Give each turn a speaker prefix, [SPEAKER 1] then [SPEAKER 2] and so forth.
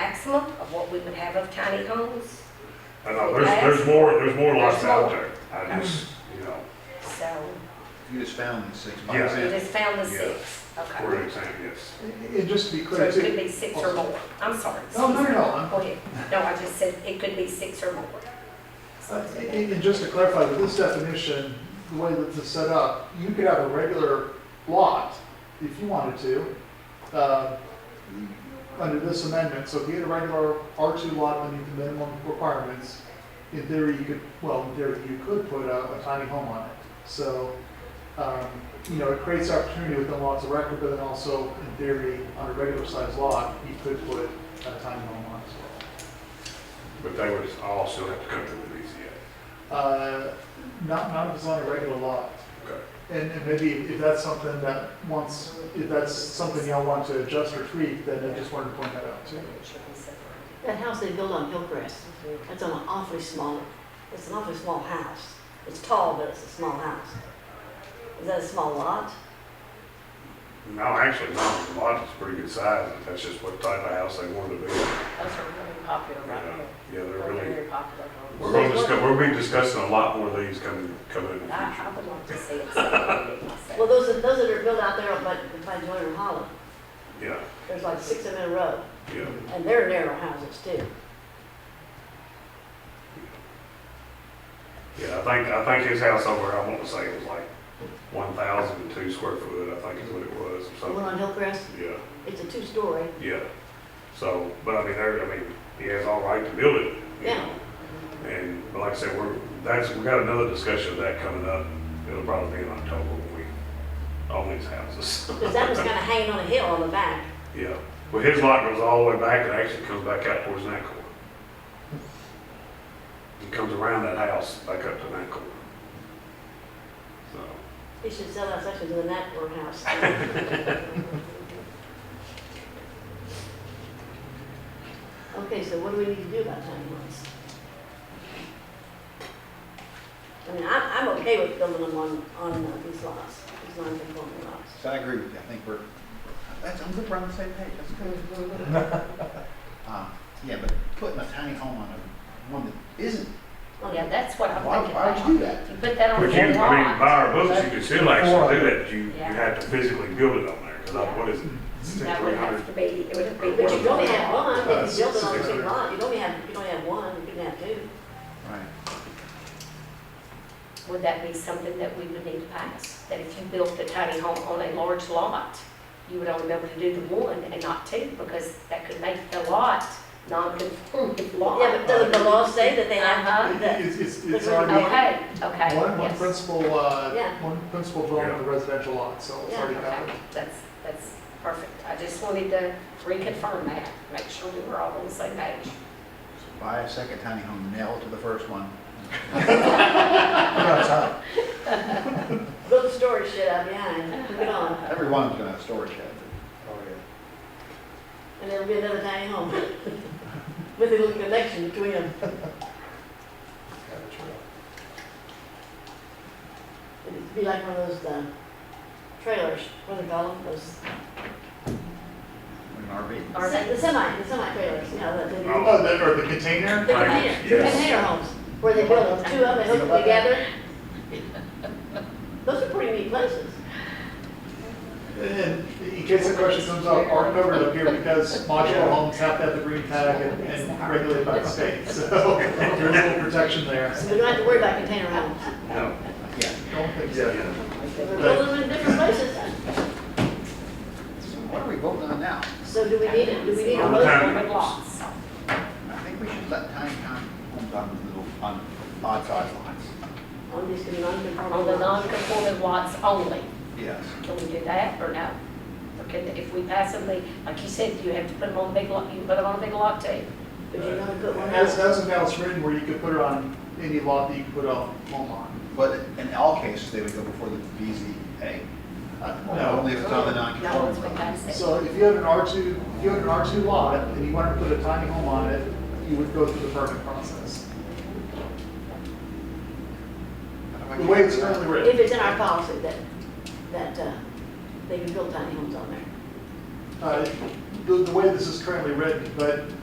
[SPEAKER 1] maximum of what we would have of tiny homes.
[SPEAKER 2] I know, there's, there's more, there's more lots out there. I just, you know,
[SPEAKER 1] So
[SPEAKER 3] You just found the six by
[SPEAKER 2] Yeah.
[SPEAKER 1] we
[SPEAKER 3] ten.
[SPEAKER 1] just found the
[SPEAKER 2] Yeah.
[SPEAKER 1] six.
[SPEAKER 2] for
[SPEAKER 1] Okay.
[SPEAKER 2] an example, yes.
[SPEAKER 4] And and just to be
[SPEAKER 1] So
[SPEAKER 4] clear,
[SPEAKER 1] it could
[SPEAKER 4] too,
[SPEAKER 1] be six or more. I'm sorry.
[SPEAKER 4] no, no, no, I'm-
[SPEAKER 1] Go ahead. No, I just said it could be six or more.
[SPEAKER 4] uh, and and just to clarify, with this definition, the way that this is set up, you could have a regular lot if you wanted to, uh, under this amendment, so if you had a regular R2 lot beneath the minimum requirements, in theory, you could, well, in theory, you could put a a tiny home on it. So, um, you know, it creates opportunity within lots of record, but then also, in theory, on a regular sized lot, you could put a tiny home on it as well.
[SPEAKER 2] But they would all still have to come to the BZA.
[SPEAKER 4] Uh, not, not if it's on a regular lot.
[SPEAKER 2] Okay.
[SPEAKER 4] And, and maybe if that's something that once, if that's something y'all want to adjust or tweak, then I just wanted to point that out too.
[SPEAKER 5] That house they built on Hillcrest, that's an awfully small, it's an awfully small house. It's tall, but it's a small house. Is that a small lot?
[SPEAKER 2] No, actually, no, the lot is pretty good size, but that's just what type of house they wanted to be. Yeah,
[SPEAKER 6] Those are really popular right
[SPEAKER 2] Yeah,
[SPEAKER 6] here.
[SPEAKER 2] they're
[SPEAKER 6] They're
[SPEAKER 2] really,
[SPEAKER 6] very popular
[SPEAKER 2] we're
[SPEAKER 6] homes.
[SPEAKER 2] gonna discuss, we'll be discussing a lot more of these coming, coming in the
[SPEAKER 1] I, I
[SPEAKER 2] future.
[SPEAKER 1] would like to see it separated myself.
[SPEAKER 5] Well, those, are- those that are built out there by, by Joyner Hollow,
[SPEAKER 2] Yeah,
[SPEAKER 5] there's like six of them in a row,
[SPEAKER 2] yeah.
[SPEAKER 5] and they're narrow houses too.
[SPEAKER 2] Yeah, I think, I think his house over, I want to say it was like one thousand and two square foot, I think is what it was, or
[SPEAKER 5] The one
[SPEAKER 2] something.
[SPEAKER 5] on Hillcrest,
[SPEAKER 2] Yeah.
[SPEAKER 5] it's a two-story,
[SPEAKER 2] Yeah. So, but I mean, there, I mean, he has all right to build it. you
[SPEAKER 5] Yeah.
[SPEAKER 2] know. And but like I said, we're, that's, we got another discussion of that coming up. It'll probably be in October when we own these houses.
[SPEAKER 5] because that was kind of hanging on a hill on the back.
[SPEAKER 2] Yeah. Well, his lot goes all the way back and actually comes back out towards Nancore. It comes around that house back up to Nancore. So,
[SPEAKER 5] He should sell that section to the Natmore House. Okay, so what do we need to do about tiny homes? I mean, I'm, I'm okay with building them on, on uh, these lots, these non-conforming lots.
[SPEAKER 3] So I agree with you, I think we're, that's, I'm we're on the same page, that's good. Um, Yeah, but putting a tiny home on a, one that isn't,
[SPEAKER 5] On
[SPEAKER 6] Yeah, that's what I'm
[SPEAKER 3] Why-
[SPEAKER 6] thinking.
[SPEAKER 3] why would you do that?
[SPEAKER 6] You put that on
[SPEAKER 2] but you, I
[SPEAKER 6] one
[SPEAKER 2] mean, by
[SPEAKER 6] lot.
[SPEAKER 2] our books, you can still actually do that. You, you
[SPEAKER 6] Yeah.
[SPEAKER 2] have to physically build it on there, because what is it? Six,
[SPEAKER 1] That
[SPEAKER 2] three
[SPEAKER 1] would
[SPEAKER 2] hundred
[SPEAKER 1] have to be, it would have to be.
[SPEAKER 5] But you only have one, if
[SPEAKER 4] Uh,
[SPEAKER 5] you build
[SPEAKER 4] six
[SPEAKER 5] it on a big
[SPEAKER 4] hundred.
[SPEAKER 5] lot, you only have, you only have one, you can have two.
[SPEAKER 3] right,
[SPEAKER 1] Would that be something that we would need to pass? That if you built a tiny home on a large lot, you would only be able to do the one and not two, because that could make the lot non-conforming lot.
[SPEAKER 5] Yeah, but doesn't the law say that they have
[SPEAKER 1] Uh-huh.
[SPEAKER 5] to do that?
[SPEAKER 4] It's, it's, it's
[SPEAKER 5] That's
[SPEAKER 4] already,
[SPEAKER 1] Okay, okay,
[SPEAKER 4] one, one
[SPEAKER 1] yes.
[SPEAKER 4] principal, uh,
[SPEAKER 5] Yeah.
[SPEAKER 4] one principal dwelling with a residential lot, so it's
[SPEAKER 5] Yeah,
[SPEAKER 4] already
[SPEAKER 1] Okay,
[SPEAKER 4] covered.
[SPEAKER 1] that's, that's perfect. I just wanted to reconfirm that, make sure we were all on the same page.
[SPEAKER 3] buy a second tiny home, nail it to the first one.
[SPEAKER 5] Build a storage shed out behind, move it on,
[SPEAKER 3] Everyone's gonna have a storage shed.
[SPEAKER 5] and there'll be another tiny home. With a little connection between them. It'd be like one of those, uh, trailers, what do they call them, those,
[SPEAKER 3] An RV.
[SPEAKER 5] the se- the semi, the semi trailers, you know, that they,
[SPEAKER 2] Oh.
[SPEAKER 4] Oh, that, or the container?
[SPEAKER 5] the container, the
[SPEAKER 2] Yes.
[SPEAKER 5] container homes, where they build them, two of them, they hook them together. Those are pretty neat places.
[SPEAKER 4] And in case the question comes up, are covered up here because modular homes have to have the green tag and, and regulated by the state, so there's a little protection there.
[SPEAKER 5] We don't have to worry about container homes.
[SPEAKER 2] No.
[SPEAKER 3] Yeah.
[SPEAKER 4] Don't think so.
[SPEAKER 2] Yeah.
[SPEAKER 5] If We're building them in different places.
[SPEAKER 3] So what are we voting on now?
[SPEAKER 5] So do we need it, do we need a
[SPEAKER 2] All the
[SPEAKER 5] motion?
[SPEAKER 2] time.
[SPEAKER 1] Lots.
[SPEAKER 3] I think we should let tiny home- homes on the little, on odd size lines.
[SPEAKER 5] On these
[SPEAKER 1] On the
[SPEAKER 5] non-conforming lots?
[SPEAKER 1] non-conforming lots only,
[SPEAKER 3] Yes.
[SPEAKER 1] can we do that or no? Or can, if we pass them, they- like you said, you have to put them on a big lot, you can put them on a big lot too.
[SPEAKER 5] Would you wanna put one
[SPEAKER 4] As,
[SPEAKER 5] out?
[SPEAKER 4] as of now, it's written where you could put it on any lot that you could put a home on.
[SPEAKER 3] But in all cases, they would go before the BZA.
[SPEAKER 4] Uh,
[SPEAKER 3] Only
[SPEAKER 4] No,
[SPEAKER 3] if it's on
[SPEAKER 1] No,
[SPEAKER 3] the
[SPEAKER 1] it's what
[SPEAKER 3] non-conforming.
[SPEAKER 1] I said.
[SPEAKER 4] so if you had an R two, if you had an R two lot and you wanted to put a tiny home on it, you would go through the permit process. The way it's currently
[SPEAKER 5] If
[SPEAKER 4] written.
[SPEAKER 5] it's in our policy that, that, uh, they can build tiny homes on there.
[SPEAKER 4] Uh, The, the way this is currently written, but